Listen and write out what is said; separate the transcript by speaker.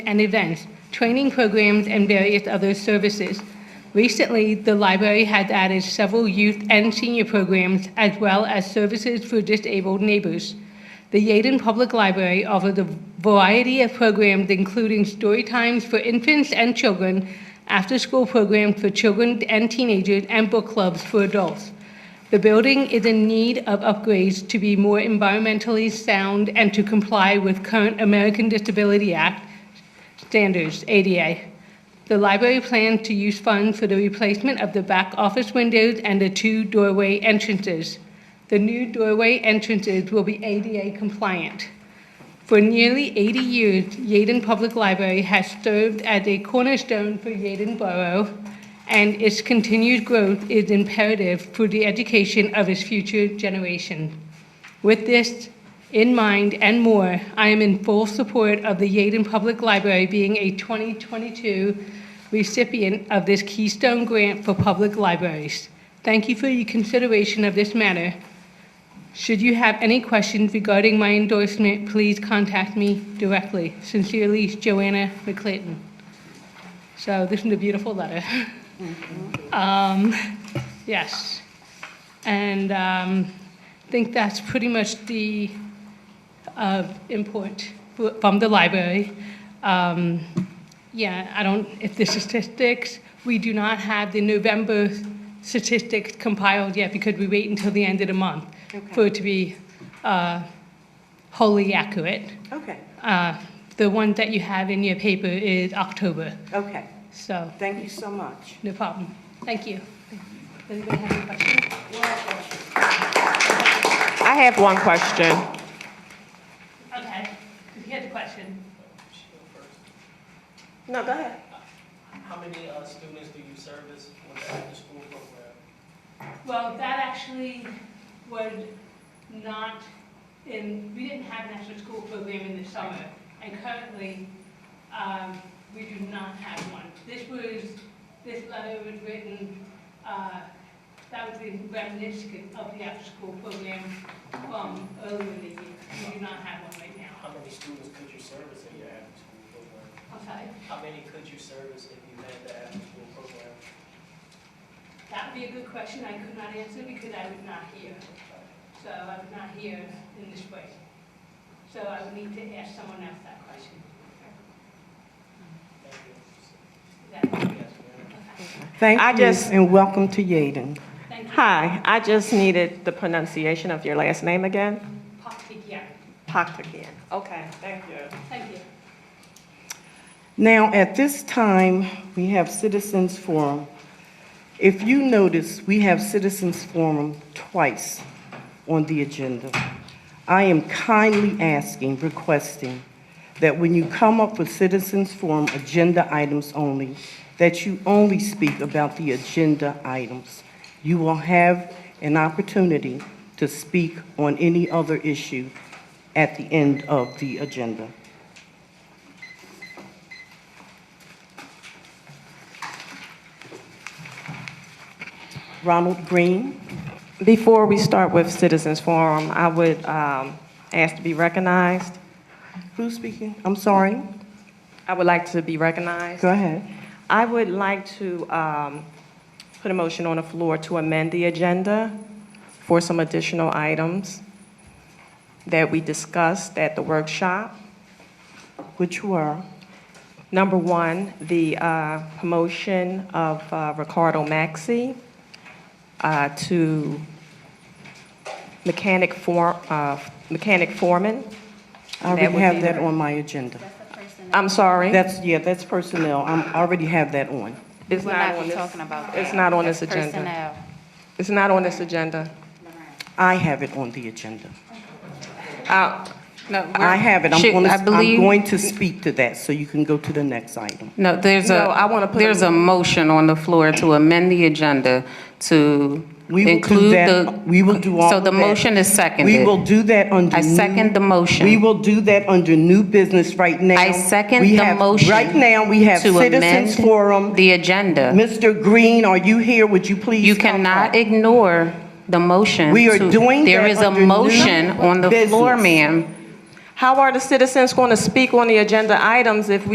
Speaker 1: and events, training programs, and various other services. Recently, the library has added several youth and senior programs as well as services for disabled neighbors. The Yaden Public Library offers a variety of programs including story times for infants and children, after-school programs for children and teenagers, and book clubs for adults. The building is in need of upgrades to be more environmentally sound and to comply with current American Disability Act standards, ADA. The library plans to use funds for the replacement of the back office windows and the two doorway entrances. The new doorway entrances will be ADA compliant. For nearly 80 years, Yaden Public Library has served as a cornerstone for Yaden Borough, and its continued growth is imperative for the education of its future generation. With this in mind and more, I am in full support of the Yaden Public Library being a 2022 recipient of this Keystone Grant for Public Libraries. Thank you for your consideration of this matter. Should you have any questions regarding my endorsement, please contact me directly. Sincerely, Joanna McClinton. So this is a beautiful letter. Um, Yes. And um, I think that's pretty much the uh, import fr- from the library. Um, Yeah, I don't, if the statistics, we do not have the November statistics compiled yet because we wait until the end of the month for it to be uh, wholly accurate.
Speaker 2: Okay,
Speaker 1: Uh, The one that you have in your paper is October,
Speaker 2: okay.
Speaker 1: so
Speaker 2: Thank you so much.
Speaker 1: no problem. Thank you. Anybody have any questions?
Speaker 3: I have one question.
Speaker 1: Okay, if you had a question.
Speaker 2: No, go ahead.
Speaker 4: How many uh, students do you service with the after-school program?
Speaker 1: Well, that actually was not in, we didn't have an after school program in the summer. And currently, um, we do not have one. This was, this letter was written, uh, that was the reminiscent of the after school program from earlier in the year. We do not have one right now.
Speaker 4: How many students could you service in your after-school program?
Speaker 1: I'm sorry,
Speaker 4: How many could you service if you had the after-school program?
Speaker 1: that would be a good question I could not answer because I was not here. So I was not here in this way. So I would need to ask someone else that question.
Speaker 4: Thank
Speaker 1: Is
Speaker 4: you.
Speaker 1: that-
Speaker 4: Yes, ma'am.
Speaker 2: Thank
Speaker 3: I just-
Speaker 2: you, and welcome to Yaden.
Speaker 1: Thank you.
Speaker 3: Hi, I just needed the pronunciation of your last name again.
Speaker 1: Paktikia.
Speaker 3: Paktagian. Okay, thank you.
Speaker 1: Thank you.
Speaker 2: Now, at this time, we have Citizens Forum. If you notice, we have Citizens Forum twice on the agenda. I am kindly asking, requesting, that when you come up with Citizens Forum agenda items only, that you only speak about the agenda items. You will have an opportunity to speak on any other issue at the end of the agenda. Ronald Green?
Speaker 3: Before we start with Citizens Forum, I would um, ask to be recognized.
Speaker 2: Who's speaking? I'm sorry.
Speaker 3: I would like to be recognized.
Speaker 2: Go ahead.
Speaker 3: I would like to um, put a motion on the floor to amend the agenda for some additional items that we discussed at the workshop.
Speaker 2: Which were?
Speaker 3: Number one, the uh, promotion of uh, Ricardo Maxi uh, to mechanic for, uh, mechanic foreman.
Speaker 2: I
Speaker 3: And that
Speaker 2: already
Speaker 3: would
Speaker 2: have
Speaker 3: be-
Speaker 2: that on my agenda.
Speaker 3: I'm sorry,
Speaker 2: That's, yeah, that's personnel. I'm, I already have that on.
Speaker 3: it's
Speaker 5: We're
Speaker 3: not
Speaker 5: not
Speaker 3: on this,
Speaker 5: talking about
Speaker 3: it's
Speaker 5: that.
Speaker 3: not on this
Speaker 5: That's
Speaker 3: agenda.
Speaker 5: personnel.
Speaker 3: It's not on this agenda.
Speaker 2: I have it on the agenda.
Speaker 3: Uh,
Speaker 5: No,
Speaker 2: I have it. I'm
Speaker 5: Shoot,
Speaker 2: going to,
Speaker 5: I
Speaker 2: I'm
Speaker 5: believe-
Speaker 2: going to speak to that, so you can go to the next item.
Speaker 5: No, there's
Speaker 3: No, I wanna
Speaker 5: a,
Speaker 3: put
Speaker 5: there's
Speaker 3: a-
Speaker 5: a motion on the floor to amend the agenda to
Speaker 2: We will do
Speaker 5: include the.
Speaker 2: that, we will do all
Speaker 5: So
Speaker 2: of
Speaker 5: the
Speaker 2: that.
Speaker 5: motion is seconded.
Speaker 2: We will do that under.
Speaker 5: I
Speaker 2: new-
Speaker 5: second the motion.
Speaker 2: We will do that under new business right now.
Speaker 5: I second
Speaker 2: We
Speaker 5: the
Speaker 2: have-
Speaker 5: motion.
Speaker 2: Right now, we have
Speaker 5: to
Speaker 2: Citizens
Speaker 5: amend
Speaker 2: Forum.
Speaker 5: The agenda.
Speaker 2: Mr. Green, are you here? Would you please?
Speaker 5: You
Speaker 2: come up?
Speaker 5: cannot ignore the motion.
Speaker 2: We are
Speaker 5: to-
Speaker 2: doing
Speaker 5: There
Speaker 2: that
Speaker 5: is a
Speaker 2: under new
Speaker 5: motion on the floor,
Speaker 2: business.
Speaker 5: ma'am.
Speaker 3: How are the citizens going to speak on the agenda items if we